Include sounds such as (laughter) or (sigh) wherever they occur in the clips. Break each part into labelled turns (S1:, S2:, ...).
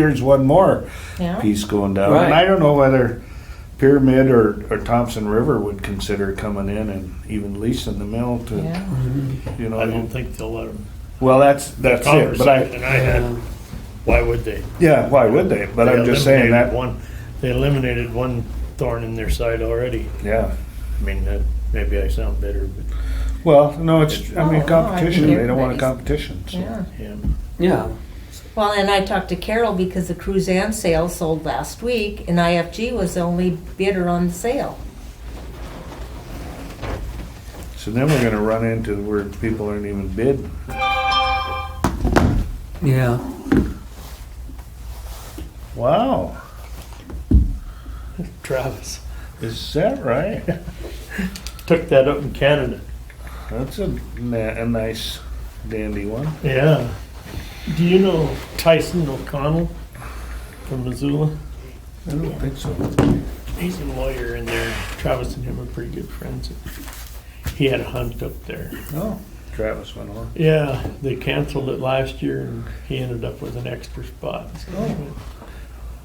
S1: there's one more
S2: Yeah.
S1: piece going down.
S3: Right.
S1: And I don't know whether Pyramid or, or Thompson River would consider coming in and even leasing the mill to,
S2: Yeah.
S1: you know.
S4: I don't think they'll let them.
S1: Well, that's, that's it, but I,
S4: And I
S3: uh,
S4: had, why would they?
S1: yeah, why would they? But I'm
S4: They
S1: just saying
S4: eliminated
S1: that,
S4: One, they eliminated one thorn in their side already.
S1: yeah.
S4: I mean, that, maybe I sound bitter, but,
S1: Well, no, it's, I
S2: Oh, no, I
S1: mean,
S2: think
S1: competition, they don't want a
S2: everybody's-
S1: competition, so.
S2: Yeah.
S4: yeah.
S3: Yeah,
S2: Well, and I talked to Carol because the Cruzan sale sold last week, and IFG was the only bidder on the sale.
S1: So then we're gonna run into where people aren't even bid.
S3: yeah.
S1: Wow,
S4: Travis
S1: is that right? (laughs)
S4: took that up in Canada.
S1: That's a, na- a nice dandy one.
S4: Yeah. Do you know Tyson O'Connell from Missoula?
S1: I don't think so.
S4: He's a lawyer in there. Travis and him are pretty good friends. He had a hunt up there.
S1: No, Travis went on.
S4: Yeah, they canceled it last year and he ended up with an extra spot.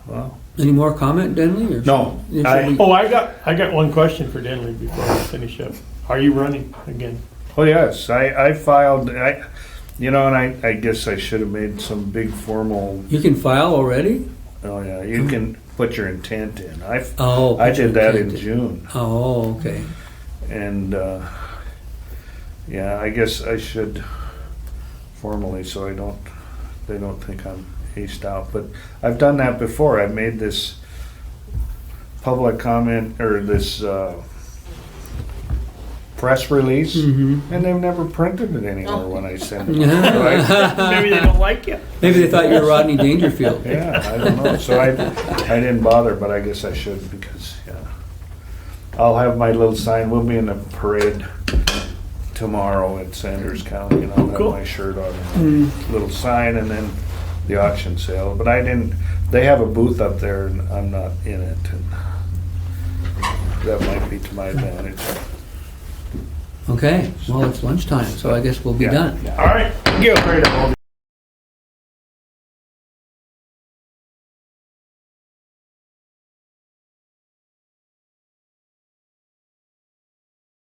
S1: Wow.
S3: Any more comment, Denley? or-
S1: No,
S3: Should
S1: I-
S3: we-
S4: Oh, I got, I got one question for Denley before I finish up. Are you running again?
S1: Oh yes, I, I filed. I, you know, and I, I guess I should have made some big formal.
S3: You can file already?
S1: Oh yeah, you can put your intent in. I
S3: Oh.
S1: I
S3: put your
S1: did that in
S3: intent
S1: June,
S3: Oh, okay.
S1: and uh, yeah, I guess I should formally, so I don't they don't think I'm aced out. But I've done that before. I've made this public comment or this uh, press release.
S3: Mm-hmm.
S1: And they've never printed it anymore when I
S3: (laughs)
S1: send it.
S3: Yeah.
S4: (laughs) Maybe they don't like you.
S3: (laughs) Maybe they thought you were Rodney Dangerfield.
S1: Yeah, I don't know. So I, I didn't bother, but I guess I should because, yeah. I'll have my little sign. We'll be in the parade tomorrow at Sanders County and I'll have
S4: Cool.
S1: my shirt on. and a Little sign and then the auction sale. But I didn't, they have a booth up there and I'm not in it. and That might be to my advantage.
S3: Okay, well, it's lunchtime, so I guess we'll be
S1: Yeah.
S3: done.
S4: All right.
S1: Get rid of all